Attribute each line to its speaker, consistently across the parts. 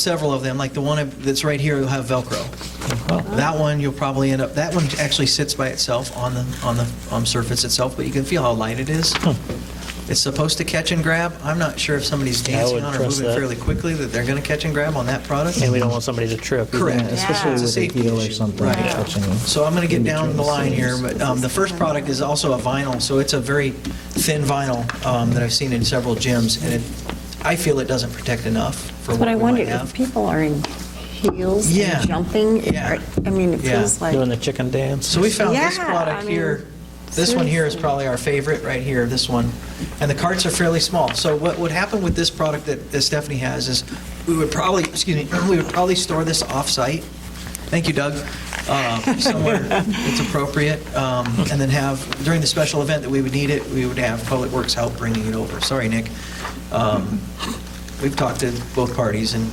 Speaker 1: several of them, like the one that's right here will have Velcro. That one, you'll probably end up, that one actually sits by itself on the, on the um, surface itself, but you can feel how light it is. It's supposed to catch and grab. I'm not sure if somebody's dancing
Speaker 2: would
Speaker 1: on or
Speaker 2: trust
Speaker 1: moving
Speaker 2: that.
Speaker 1: fairly quickly that they're going to catch and grab on that product.
Speaker 2: And we don't want somebody to trip. either.
Speaker 1: Correct.
Speaker 3: especially
Speaker 1: It's a
Speaker 3: with a
Speaker 1: safety
Speaker 3: heel or
Speaker 1: issue.
Speaker 3: something
Speaker 1: Right.
Speaker 3: catching.
Speaker 1: So I'm going to get
Speaker 3: in
Speaker 1: down
Speaker 3: between
Speaker 1: the
Speaker 3: the
Speaker 1: line here,
Speaker 3: seams.
Speaker 1: but um, the first product is also a vinyl, so it's a very thin vinyl um, that I've seen in several gyms, and it, I feel it doesn't protect enough for
Speaker 4: But
Speaker 1: what
Speaker 4: I
Speaker 1: we
Speaker 4: wondered
Speaker 1: might
Speaker 4: if
Speaker 1: have.
Speaker 4: people are in heels
Speaker 1: Yeah.
Speaker 4: and jumping.
Speaker 1: Yeah.
Speaker 4: I mean, it
Speaker 1: Yeah.
Speaker 4: feels like,
Speaker 2: Doing the chicken dance.
Speaker 1: So we found this
Speaker 4: Yeah, I
Speaker 1: product
Speaker 4: mean,
Speaker 1: here, this one here is
Speaker 4: seriously.
Speaker 1: probably our favorite, right here, this one, and the carts are fairly small. So what would happen with this product that that Stephanie has is, we would probably, excuse me, we would probably store this off-site, thank you Doug, Uh, somewhere it's appropriate, um, and then have, during the special event that we would need it, we would have Public Works help bringing it over. Sorry, Nick. Um, We've talked to both parties, and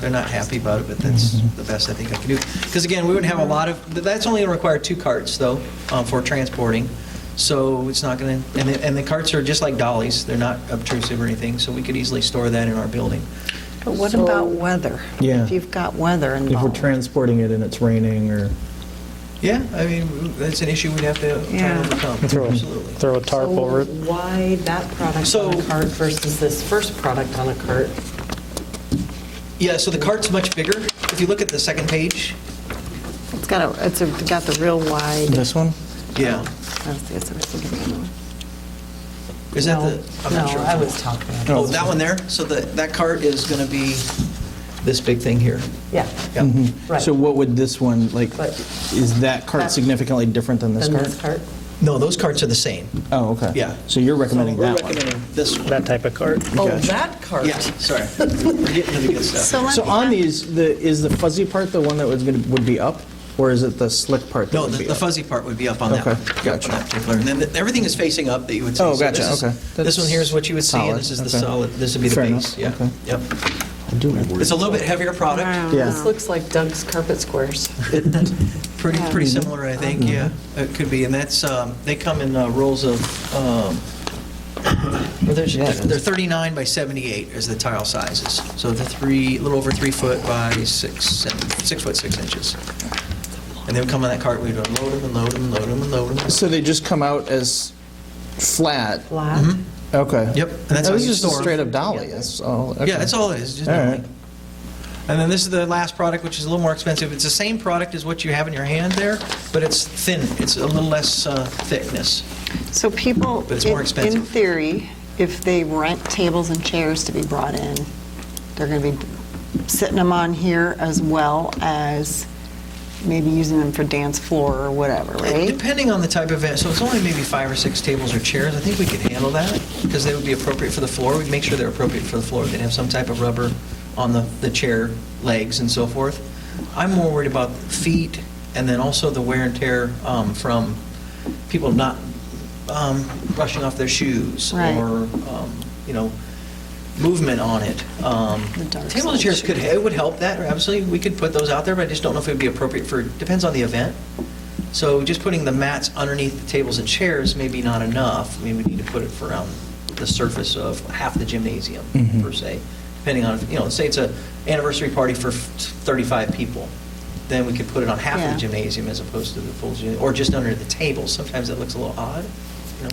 Speaker 1: they're not happy about it, but that's the best I think I can do. Because again, we wouldn't have a lot of, that's only going to require two carts, though, um, for transporting, so it's not going to, and the- and the carts are just like dollies, they're not obtrusive or anything, so we could easily store that in our building.
Speaker 4: but what about weather?
Speaker 3: Yeah.
Speaker 4: If you've got weather
Speaker 3: If we're
Speaker 4: involved.
Speaker 3: transporting it and it's raining or,
Speaker 1: Yeah, I mean, that's an issue we'd have to try
Speaker 4: Yeah.
Speaker 1: to overcome,
Speaker 2: Throw a-
Speaker 1: absolutely.
Speaker 2: Throw a tarp
Speaker 5: So
Speaker 2: over it.
Speaker 5: Why that product
Speaker 1: So-
Speaker 5: on a cart versus this first product on a cart?
Speaker 1: Yeah, so the cart's much bigger. If you look at the second page,
Speaker 4: It's got a, it's a- it's got the real wide.
Speaker 3: this one?
Speaker 1: yeah,
Speaker 4: I was- I was thinking of the other one.
Speaker 1: is that
Speaker 5: No,
Speaker 1: the, I'm not sure.
Speaker 5: No, I was talking about,
Speaker 1: Oh, that one there? So the, that cart is going to be this big thing here.
Speaker 5: yeah,
Speaker 1: Yeah.
Speaker 3: Mm-hmm.
Speaker 5: right.
Speaker 3: So what would this one, like,
Speaker 5: But-
Speaker 3: is that cart
Speaker 5: That-
Speaker 3: significantly different than this
Speaker 5: Then
Speaker 3: cart?
Speaker 5: this cart?
Speaker 1: No, those carts are the same.
Speaker 3: Oh, okay.
Speaker 1: Yeah.
Speaker 3: So you're recommending
Speaker 1: We're
Speaker 3: that one?
Speaker 1: recommending this one.
Speaker 2: That type of cart.
Speaker 5: Oh,
Speaker 3: Gotcha.
Speaker 5: that cart?
Speaker 1: Yeah, sorry. We're getting to the good stuff.
Speaker 4: So let
Speaker 3: So
Speaker 4: me
Speaker 3: on
Speaker 4: ask-
Speaker 3: these, the, is the fuzzy part the one that was gonna, would be up? Or is it the slick part that
Speaker 1: No,
Speaker 3: would
Speaker 1: the
Speaker 3: be
Speaker 1: the
Speaker 3: up?
Speaker 1: fuzzy part would be up on that
Speaker 3: Okay,
Speaker 1: one. Yep, on
Speaker 3: gotcha.
Speaker 1: that particular. And then the- everything is facing up that you would see.
Speaker 3: Oh,
Speaker 1: So this
Speaker 3: gotcha,
Speaker 1: is-
Speaker 3: okay.
Speaker 1: This
Speaker 3: That's
Speaker 1: one here is what you would see, and
Speaker 3: solid,
Speaker 1: this is the
Speaker 3: okay.
Speaker 1: solid, this would be the
Speaker 3: Fair
Speaker 1: base.
Speaker 3: enough,
Speaker 1: Yeah,
Speaker 3: okay.
Speaker 1: Yep.
Speaker 3: I do remember.
Speaker 1: It's a little bit heavier product,
Speaker 5: This looks like Doug's carpet squares.
Speaker 1: pretty, pretty similar, I think,
Speaker 3: Mm-hmm.
Speaker 1: yeah. It could be, and that's, um, they come in uh, rolls of, um, well, there's-
Speaker 3: Yeah.
Speaker 1: they're 39 by 78 is the tile sizes. So they're three, a little over three foot by six, and- six foot six inches. And they would come on that cart, we'd unload them, and load them, and load them, and load them.
Speaker 3: So they just come out as flat?
Speaker 5: Flat.
Speaker 1: Mm-hmm.
Speaker 3: Okay.
Speaker 1: Yep, and that's how
Speaker 3: That was
Speaker 1: you
Speaker 3: just a
Speaker 1: store 'em.
Speaker 3: straight up dolly, that's all.
Speaker 1: Yeah,
Speaker 3: okay.
Speaker 1: that's all it is, just
Speaker 3: All right.
Speaker 1: knowing. And then this is the last product, which is a little more expensive. It's the same product as what you have in your hand there, but it's thin. It's a little less uh, thickness.
Speaker 4: So people,
Speaker 1: But it's more
Speaker 4: if- in
Speaker 1: expensive.
Speaker 4: theory, if they rent tables and chairs to be brought in, they're going to be sitting them on here as well as maybe using them for dance floor or whatever, right?
Speaker 1: Depending on the type of event, so it's only maybe five or six tables or chairs, I think we could handle that, because they would be appropriate for the floor, we'd make sure they're appropriate for the floor, they'd have some type of rubber on the, the chair legs and so forth. I'm more worried about feet, and then also the wear and tear um, from people not um, brushing off their shoes,
Speaker 4: Right.
Speaker 1: or, um, you know, movement on it. Um,
Speaker 4: The dark
Speaker 1: Tables and chairs
Speaker 4: side.
Speaker 1: could, it would help that, absolutely, we could put those out there, but I just don't know if it would be appropriate for, depends on the event. So just putting the mats underneath the tables and chairs may be not enough. I mean, we need to put it for around the surface of half the gymnasium, per se, depending on, if you know, say it's a anniversary party for 35 people, then we could put it on half of
Speaker 4: Yeah.
Speaker 1: the gymnasium as opposed to the full gym, or just under the tables. Sometimes that looks a little odd, you know?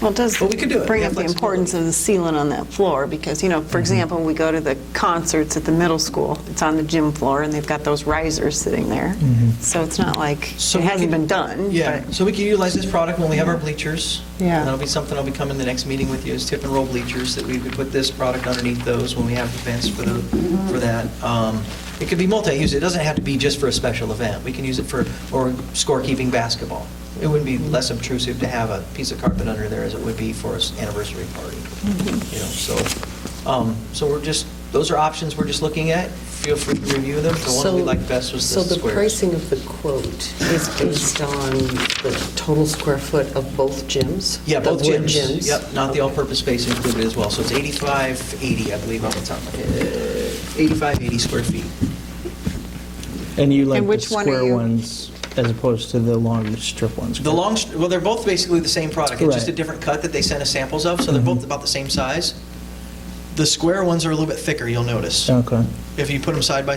Speaker 4: Well, it does
Speaker 1: Well, we could do it. We
Speaker 4: bring
Speaker 1: have
Speaker 4: up the
Speaker 1: flexibility. Mm-hmm.
Speaker 4: importance of the ceiling on that floor, because, you know, for example, we go to the concerts at the middle school, it's on the gym floor, and they've got those risers sitting there. So it's not like,
Speaker 1: Mm-hmm. So
Speaker 4: it
Speaker 1: we
Speaker 4: hasn't
Speaker 1: could-
Speaker 4: been done.
Speaker 1: Yeah,
Speaker 4: but-
Speaker 1: so we can utilize this product when we have our bleachers.
Speaker 4: Yeah.
Speaker 1: And That'll be something I'll be coming the next meeting with you, is tip and roll bleachers, that we could put this product underneath those when we have events for the, for that. Um, It could be multi-use, it doesn't have to be just for a special event. We can use it for, or scorekeeping basketball. It would be less obtrusive to have a piece of carpet under there as it would be for an anniversary party, you know, so. um, So we're just, those are options we're just looking at. Feel free to review them. The one we
Speaker 5: So-
Speaker 1: liked best was
Speaker 5: So
Speaker 1: the
Speaker 5: the
Speaker 1: squares.
Speaker 5: pricing of the quote is based on the total square foot of both gyms?
Speaker 1: Yeah,
Speaker 5: The
Speaker 1: both
Speaker 5: wood
Speaker 1: gyms. Yep, not the
Speaker 5: Okay.
Speaker 1: all-purpose space included as well. So it's 85, 80, I believe, on the top. of my head. 85, 80 square feet.
Speaker 3: And you like the
Speaker 4: which one are
Speaker 3: square
Speaker 4: you-
Speaker 3: ones as opposed to the long strip ones?
Speaker 1: The
Speaker 3: correct?
Speaker 1: long, st- well, they're both basically the same product. It's just a
Speaker 3: Right.
Speaker 1: different cut that they sent us samples of, so they're both about the same size. The square ones are a little bit thicker, you'll notice.
Speaker 3: Okay.
Speaker 1: If you put them side by